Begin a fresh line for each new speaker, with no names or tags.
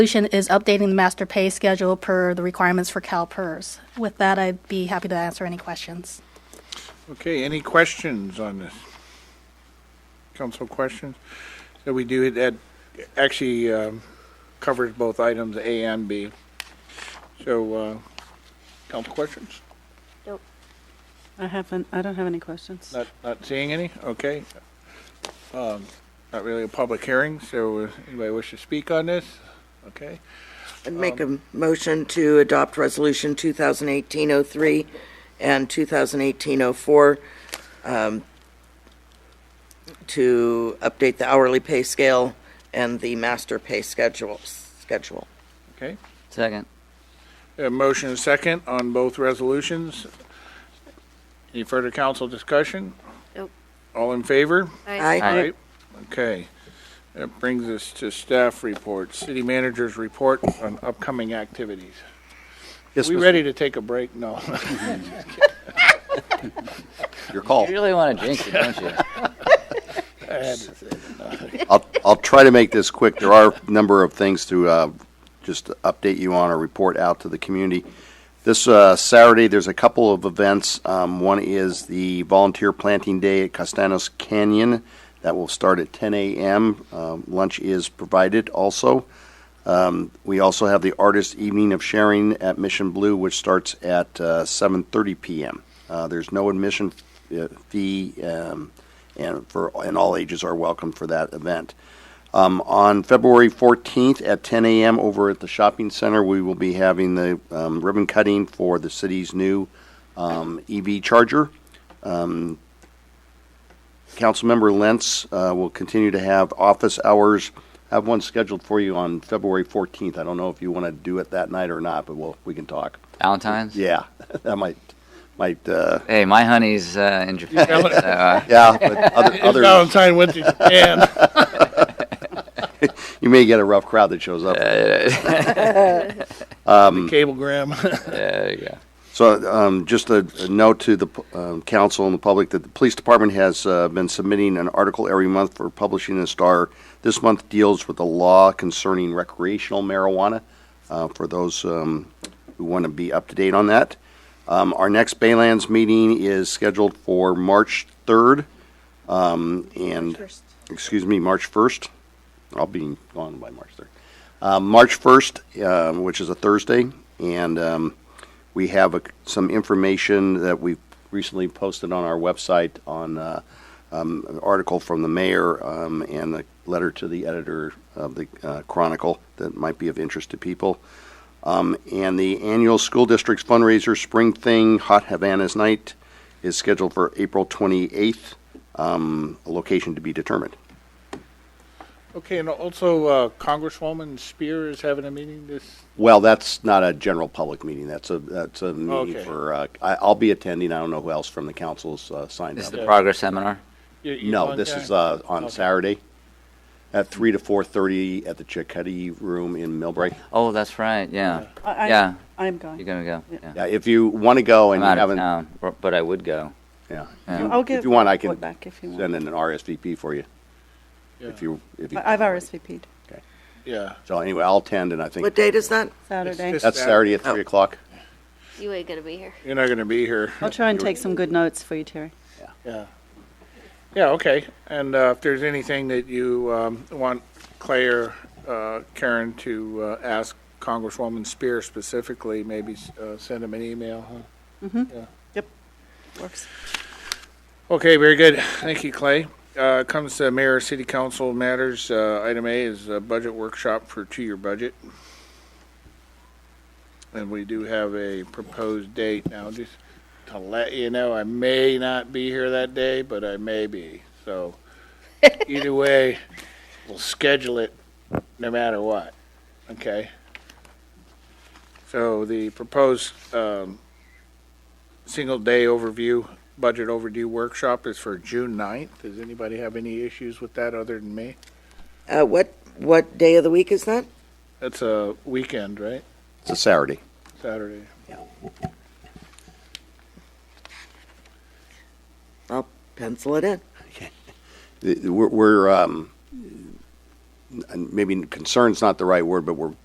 Solution is updating the master pay schedule per the requirements for CalPERS. With that, I'd be happy to answer any questions.
Okay, any questions on this? Council questions? So we do, that actually um, covers both items A and B. So, uh, council questions?
I haven't, I don't have any questions.
Not, not seeing any? Okay. Um, Not really a public hearing, so uh, anybody wish to speak on this? Okay.
I'd make a motion to adopt Resolution 2018-03 and 2018-04 um, to update the hourly pay scale and the master pay schedule, schedule.
Okay.
Second.
A motion and second on both resolutions. Any further council discussion?
Nope.
All in favor?
Aye.
Aye.
Right. Okay. That brings us to staff report, city manager's report on upcoming activities.
Yes,
We
Mr.
ready to take a break? No.
Your call.
You really want to jinx it, don't you?
I'll, I'll try to make this quick. There are a number of things to uh, just update you on or report out to the community. This uh, Saturday, there's a couple of events. Um, One is the Volunteer Planting Day at Castanos Canyon. That will start at 10 a.m. Um, Lunch is provided also. Um, We also have the Artist Evening of Sharing at Mission Blue, which starts at uh, 7:30 p.m. Uh, There's no admission uh, fee, um, and for, and all ages are welcome for that event. Um, on February 14th at 10 a.m. over at the shopping center, we will be having the um, ribbon cutting for the city's new um, EV charger. Um, Councilmember Lentz uh, will continue to have office hours. I have one scheduled for you on February 14th. I don't know if you want to do it that night or not, but we'll, we can talk.
Valentine's?
Yeah, that might might uh,
Hey, my honey's uh, in Japan. so, uh,
yeah. But other,
It's
other
Valentine went to Japan.
you may get a rough crowd that shows up. Um,
Cablegram.
there you go.
So, um, just a, a note to the um, council and the public that the police department has uh, been submitting an article every month for publishing in Star. This month deals with the law concerning recreational marijuana uh, for those um, who want to be up to date on that. Um, our next Baylands meeting is scheduled for March 3rd. Um, and, excuse me, March 1st. I'll be gone by March 3rd. Uh, March 1st, um, which is a Thursday. And, um, we have a, some information that we've recently posted on our website on uh, um, an article from the mayor um, and a letter to the editor of the uh, Chronicle that might be of interest to people. Um, and the annual school district's fundraiser, Spring Thing Hot Havana's Night, is scheduled for April 28th, um, a location to be determined.
Okay, and also uh, Congresswoman Spear is having a meeting this,
Well, that's not a general public meeting. That's a that's a meeting
Okay.
for. Uh, I, I'll be attending. I don't know who else from the council's uh, signed
This
up.
is the progress seminar.
you- you
No,
on
this
time?
is uh, on
Okay.
Saturday at three to four thirty at the Chickadee Room in Millbrae.
Oh, that's right. Yeah.
I- I-
Yeah.
I'm
You're
going.
going to go. Yeah.
Yeah, if you want to go
I'm
and you
out of
haven't,
town, br- but I would go.
yeah,
Yeah.
I'll
if
give
you want, I
the
can
board back if you
send
want.
in an RSVP for you. If you, if you.
I- I've RSVP'd
Yeah.
So anyway, I'll attend, and I
What
think
date is that?
Saturday.
It's-
that's Saturday at
Oh.
three o'clock.
You ain't gonna be here.
You're not going to be here.
I'll try and take some good notes for you, Terry.
Yeah. Yeah, okay. And uh, if there's anything that you um, want Claire, uh, Karen to uh, ask Congresswoman Spear specifically, maybe uh, send them an email, huh?
Works.
Okay, very good. Thank you, Clay. Uh, Comes to Mayor City Council matters. Uh, Item A is a budget workshop for two-year budget. And we do have a proposed date now, just to let you know, I may not be here that day, but I may be. So either way, we'll schedule it no matter what, okay? So the proposed um, single-day overview budget overdue workshop is for June 9th. Does anybody have any issues with that other than me?
Uh, What, what day of the week is that?
That's a weekend, right?
It's a Saturday.
Saturday.
I'll pencil it in.
The- the- We're, we're, um, and maybe concern's not the right word, but we're